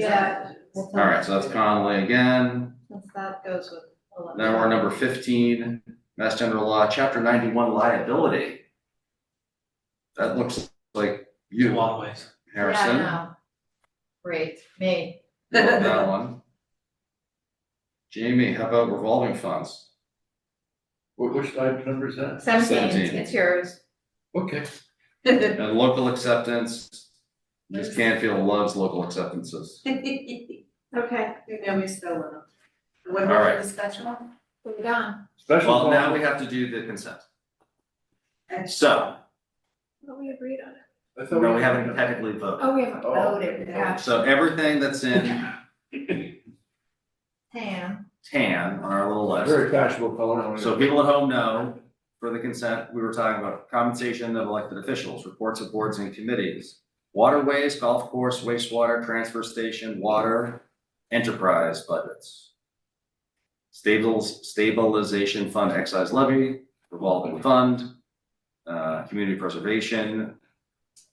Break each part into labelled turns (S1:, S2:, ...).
S1: Yeah.
S2: That's
S3: All right, so that's Conley again.
S1: Since that goes with eleven.
S3: Now we're on number fifteen, Mass General Law, Chapter ninety-one liability. That looks like
S4: in a
S3: you,
S4: lot of ways.
S3: Harrison.
S2: Yeah, no. Great, me.
S3: You want That one. Jamie, how about revolving funds?
S5: Wh- Which item number is that?
S2: Seventeen,
S3: Seventeen.
S2: it's yours.
S5: Okay,
S3: And local acceptance, Ms. Canfield loves local acceptances.
S1: Okay, you know me so well. What
S3: All right.
S1: was the special?
S2: Moving on.
S5: special.
S3: Well, now
S5: call-
S3: we have to do the consent.
S1: Okay.
S3: So,
S2: we agreed on it.
S5: I thought
S3: no, we haven't technically voted.
S2: Oh, we haven't
S5: Oh.
S2: voted, gosh.
S3: So everything that's in
S2: Tam,
S3: tan on our little list.
S5: Very fashionable call. I wanna-
S3: So people at home know, for the consent, we were talking about compensation of elected officials, reports of boards and committees, waterways, golf course, wastewater, transfer station, water, enterprise budgets. Stables, stabilization fund excise levy, revolving fund, uh, community preservation,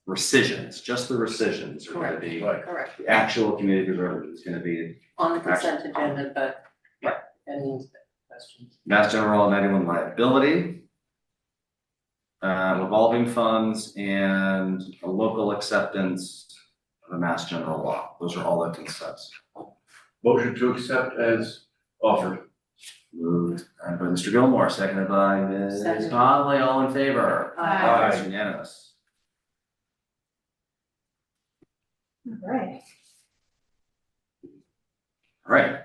S3: rescissions, just the rescissions are gonna be,
S5: Right.
S6: Correct,
S3: the actual community preservation is gonna be
S6: on the consent agenda, but, right, and questions.
S3: Mass General Law ninety-one liability. Uh, revolving funds and a local acceptance of the Mass General Law, those are all the consents.
S5: Motion to accept as offered.
S3: Moved uh, by Mr. Gilmore, seconded by Ms.
S6: Second.
S3: Conley, all in favor?
S2: Aye.
S3: Aye, it's unanimous.
S2: right.
S3: All Right,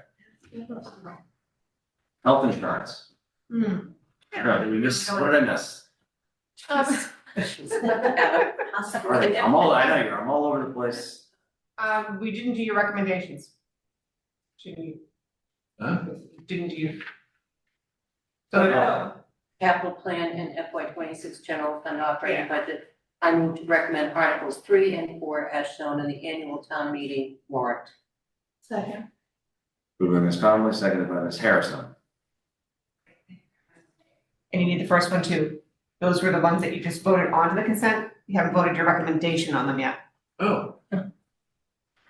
S3: health insurance,
S2: Hmm.
S3: no, did we miss, what did I miss?
S2: Um,
S3: All right, I'm all, I know you're, I'm all over the place.
S7: Um, we didn't do your recommendations. Didn't you,
S5: Huh?
S7: didn't you?
S3: Oh,
S7: So,
S3: yeah.
S6: Capital plan and FY twenty-six general fund operating budget. I move to recommend articles three and four as shown in the annual town meeting warrant.
S2: Second.
S3: Moved by Ms. Conley, seconded by Ms. Harrison.
S7: and you need the first one too. Those were the ones that you just voted on the consent. You haven't voted your recommendation on them yet.
S5: Oh,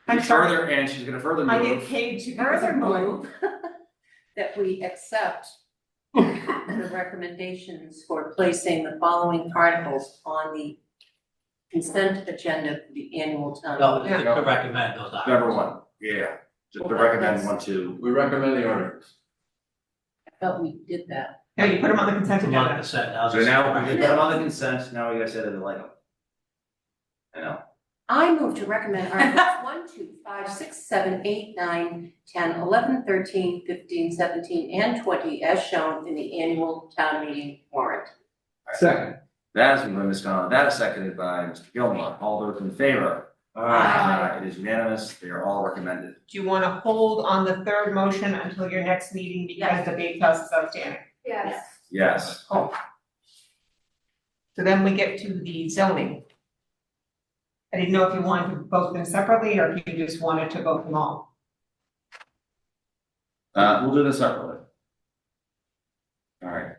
S7: I'm sorry.
S3: Further, and she's gonna further
S7: I get
S3: move,
S7: paid to.
S6: Further move that we accept the recommendations for placing the following articles on the consent agenda for the annual town.
S4: No,
S3: Yeah.
S4: to recommend those items.
S3: number one, yeah, just to recommend one, two.
S5: we recommend the articles.
S6: I thought we did that.
S7: No, you put them on the consent
S4: From what
S7: agenda.
S4: I said, that was.
S3: So now, we did that on the consent, now we gotta say that they like them. I know,
S6: I move to recommend articles one, two, five, six, seven, eight, nine, ten, eleven, thirteen, fifteen, seventeen, and twenty as shown in the annual town meeting warrant.
S5: Second.
S3: that is by Ms. Conlon, that is seconded by Mr. Gilmore, all those in favor?
S6: Aye.
S3: It is unanimous, they are all recommended.
S7: Do you wanna hold on the third motion until your next meeting because the big house is outstanding?
S1: Yes.
S3: Yes,
S7: So then we get to the zoning. I didn't know if you wanted to vote them separately or if you just wanted to vote them all.
S3: uh, we'll do this separately. Alright.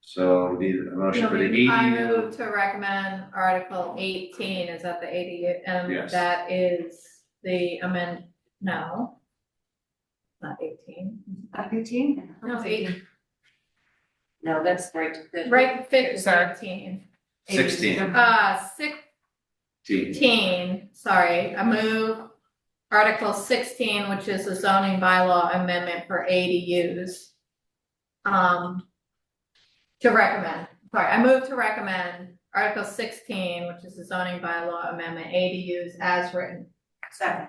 S3: So we need a motion for the
S1: I
S3: EDU,
S1: move to recommend Article eighteen, is that the ADU, and
S3: Yes.
S1: that is the amend, no. Not eighteen,
S7: Fifteen?
S1: no, it's eighteen,
S6: No, that's right, the-
S1: right, fif-
S7: Sorry.
S1: fifteen,
S3: sixteen,
S1: uh, six,
S3: T,
S1: 16, sorry, I move Article sixteen, which is the zoning bylaw amendment for ADUs. Um, to recommend, sorry, I move to recommend Article sixteen, which is the zoning bylaw amendment, ADUs as written.
S6: Second.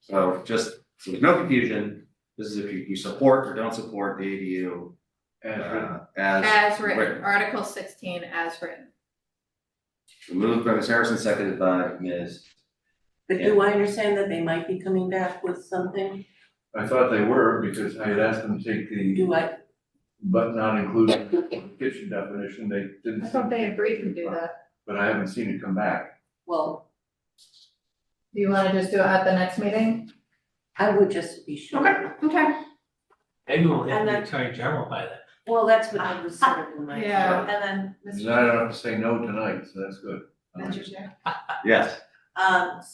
S3: so just, so there's no confusion, this is if you, you support or don't support the ADU,
S5: As written.
S3: uh, as.
S1: As written,
S3: written.
S1: Article sixteen as written.
S3: Moved by Ms. Harrison, seconded by Ms.
S6: But do I understand that they might be coming back with something?
S5: I thought they were because I had asked them to take the
S6: Do I?
S5: but not included kitchen definition. They didn't.
S1: that.
S5: But I haven't seen it come back.
S6: Well,
S1: Do you wanna just do it at the next meeting?
S6: I would just be sure.
S7: Okay.
S1: Okay.
S4: Maybe we'll have
S8: And
S4: the
S8: then-
S4: attorney general by then.
S6: Well, that's what I was sort of in my.
S1: Yeah.
S8: And then,
S5: And I don't have to say no tonight, so that's good.
S8: Mr. Chair,
S3: Yes.
S6: Um,